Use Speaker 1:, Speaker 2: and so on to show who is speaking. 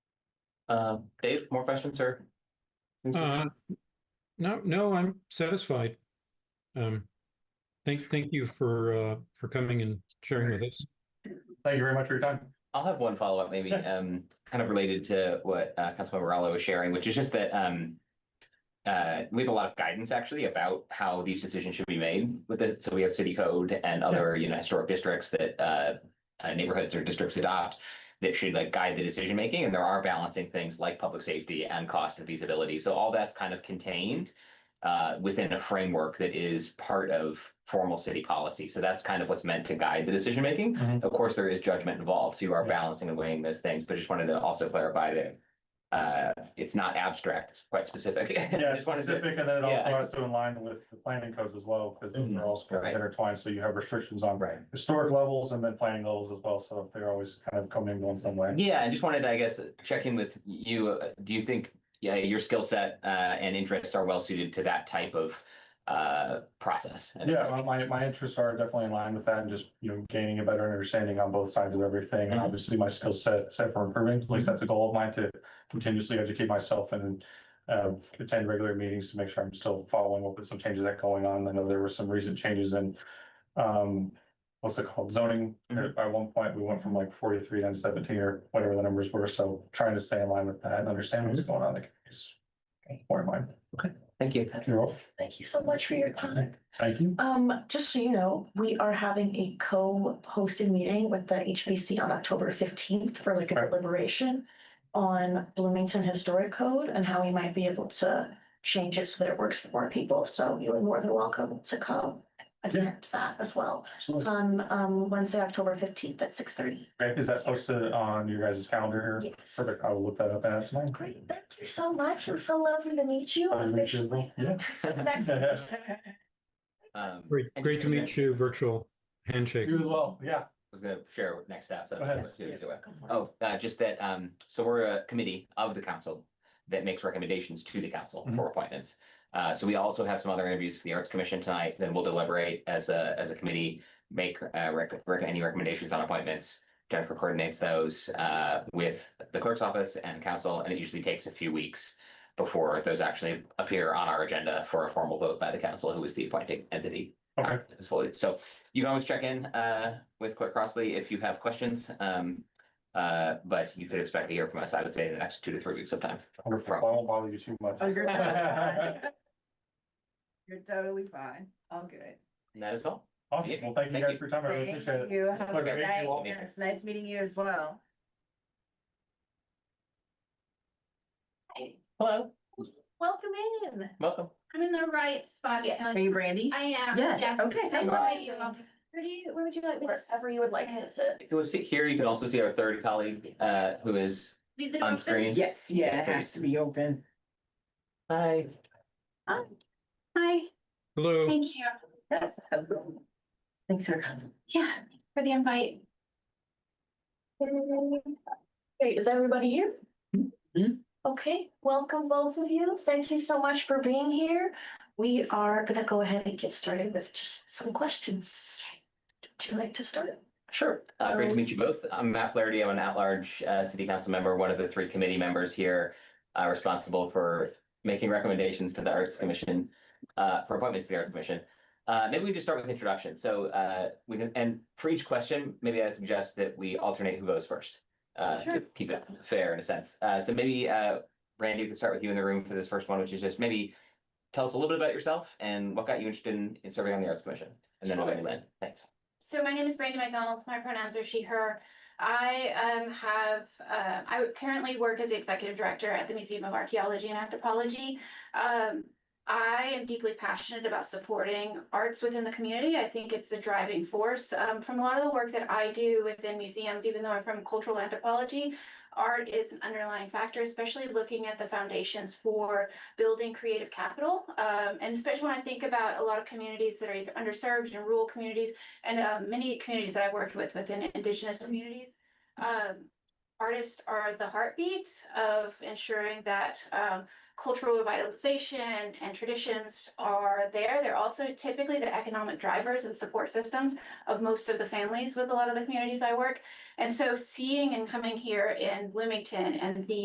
Speaker 1: Uh, Dave, more questions, sir?
Speaker 2: Uh, no, no, I'm satisfied. Um, thanks, thank you for, uh, for coming and sharing with us.
Speaker 3: Thank you very much for your time.
Speaker 1: I'll have one follow-up maybe,
Speaker 3: Yeah.
Speaker 1: um, kind of related to what, uh, Councilmember Rallo was sharing, which is just that, um, uh, we have a lot of guidance actually about how these decisions should be made with it. So we have city code and other, you know, historic districts that, uh, uh, neighborhoods or districts adopt that should like guide the decision making. And there are balancing things like public safety and cost and feasibility. So all that's kind of contained uh, within a framework that is part of formal city policy. So that's kind of what's meant to guide the decision making.
Speaker 3: Mhm.
Speaker 1: Of course, there is judgment involved, so you are
Speaker 3: Yeah.
Speaker 1: balancing and weighing those things. But just wanted to also clarify that uh, it's not abstract; it's quite specific.
Speaker 3: Yeah, it's
Speaker 1: Just wanted to-
Speaker 3: specific and then it also
Speaker 1: yeah.
Speaker 3: has to align with the planning codes as well, because
Speaker 1: Mhm.
Speaker 3: they're also kind
Speaker 1: Right.
Speaker 3: of intertwined, so you have restrictions on
Speaker 1: Right.
Speaker 3: historic levels and then planning levels as well, so they're always kind of commingled in some way.
Speaker 1: Yeah, I just wanted to, I guess, check in with you. Uh, Do you think, yeah, your skill set uh, and interests are well suited to that type of uh, process? and
Speaker 3: Yeah,
Speaker 1: approach?
Speaker 3: well, my, my interests are definitely in line with that and just, you know, gaining a better understanding on both sides of everything. And
Speaker 1: Mhm.
Speaker 3: obviously my skill set, set for improving, at least
Speaker 1: Mm-hmm.
Speaker 3: that's a goal of mine to continuously educate myself and uh, attend regular meetings to make sure I'm still following up with some changes that going on. I know there were some recent changes in um, what's it called zoning?
Speaker 1: Mhm.
Speaker 3: At one point, we went from like forty-three down to seventeen or whatever the numbers were. So trying to stay in line with that and understand what's
Speaker 1: Mm-hmm.
Speaker 3: going on. Like, it's more in mind.
Speaker 1: Thank you. Uh,
Speaker 3: You're welcome.
Speaker 4: Thank you so much for your time.
Speaker 3: Thank you.
Speaker 4: Um, just so you know, we are having a co-hosted meeting with the HBC on October fifteenth for like a
Speaker 3: Right.
Speaker 4: deliberation on Bloomington Historic Code and how we might be able to change it so that it works for more people. So you are more than welcome to come attend that as well. It's on um Wednesday, October fifteenth at six thirty.
Speaker 3: Okay, Is that posted on your guys' calendar? here?
Speaker 4: Yes.
Speaker 3: Perfect. I will look that up and ask mine.
Speaker 4: Great, thank you so much. It was so lovely to meet you
Speaker 3: Lovely to meet you as well.
Speaker 4: officially.
Speaker 3: Yeah.
Speaker 4: See you next week.
Speaker 1: Um,
Speaker 2: Great,
Speaker 1: and
Speaker 2: great
Speaker 1: just
Speaker 2: to
Speaker 1: wanted
Speaker 2: meet you, virtual handshake.
Speaker 3: You as well. Yeah.
Speaker 1: I was gonna share what next steps. I
Speaker 3: Go ahead.
Speaker 1: was gonna do it
Speaker 4: Yes,
Speaker 1: either way.
Speaker 4: go for it.
Speaker 1: Oh, uh, just that, um, so we're a committee of the council that makes recommendations to the council for appointments. Uh, so we also have some other interviews for the Arts Commission tonight, then we'll deliberate as a, as a committee, make, uh, rec- rec- any recommendations on appointments. Jennifer coordinates those, uh, with the clerk's office and council, and it usually takes a few weeks before those actually appear on our agenda for a formal vote by the council, who is the appointing entity.
Speaker 3: Okay.
Speaker 1: It's fully- So you can always check in, uh, with Clerk Crossley if you have questions. Um, uh, but you could expect to hear from us, I would say, in the next two to three weeks of time.
Speaker 3: Wonderful. I won't bother you too much.
Speaker 5: Oh, you're not.
Speaker 3: Awesome.
Speaker 5: You're totally fine. All good.
Speaker 1: And that is all.
Speaker 3: Well, thank you
Speaker 1: Thank
Speaker 3: guys
Speaker 1: you.
Speaker 3: for your time. I really
Speaker 5: Thank
Speaker 3: appreciate it.
Speaker 5: you. Have a
Speaker 3: pleasure
Speaker 5: good
Speaker 3: meeting you all.
Speaker 5: night. Yes, Nice meeting you as well.
Speaker 1: Hello,
Speaker 4: Welcome in.
Speaker 1: welcome.
Speaker 6: I'm in the right spot.
Speaker 4: Yes.
Speaker 5: Are you Brandy?
Speaker 6: I am.
Speaker 4: Yes, okay,
Speaker 6: How
Speaker 4: hello.
Speaker 6: are you? Where do you, where would you like me to?
Speaker 4: Wherever you would like to sit.
Speaker 1: If you will sit here, you can also see our third colleague, uh, who is
Speaker 6: Leave the door
Speaker 1: on
Speaker 6: open?
Speaker 1: screen.
Speaker 7: Yes, yeah, it has to be open.
Speaker 1: Hi.
Speaker 6: Hi,
Speaker 2: Hello,
Speaker 6: thank you.
Speaker 5: Yes.
Speaker 4: Thanks for coming.
Speaker 6: Yeah, for the invite.
Speaker 4: Great, is everybody here? Okay, welcome both of you. Thank you so much for being here. We are gonna go ahead and get started with just some questions. Would you like to start?
Speaker 1: Sure. Uh, great to
Speaker 4: Hello.
Speaker 1: meet you both. I'm Matt Flaherty. I'm an at-large, uh, city council member, one of the three committee members here, uh, responsible for making recommendations to the Arts Commission, uh, for appointments to the Arts Commission. Uh, maybe we just start with introduction. So, uh, we can, and for each question, maybe I suggest that we alternate who goes first. Uh, to
Speaker 6: Sure.
Speaker 1: keep it fair in a sense. Uh, so maybe, uh, Randy, we can start with you in the room for this first one, which is just maybe tell us a little bit about yourself and what got you interested in, in serving on the Arts Commission. And then we'll go to Lynn. Thanks.
Speaker 6: So my name is Brandy McDonald. My pronouns are she, her. I um have, uh, I currently work as the executive director at the Museum of Archaeology and Anthropology. Um, I am deeply passionate about supporting arts within the community. I think it's the driving force. Um, from a lot of the work that I do within museums, even though I'm from cultural anthropology, art is an underlying factor, especially looking at the foundations for building creative capital. Um, and especially when I think about a lot of communities that are either underserved and rural communities, and uh, many communities that I worked with within Indigenous communities. Um, artists are the heartbeat of ensuring that um, cultural revitalization and traditions are there. They're also typically the economic drivers and support systems of most of the families with a lot of the communities I work. And so seeing and coming here in Bloomington and the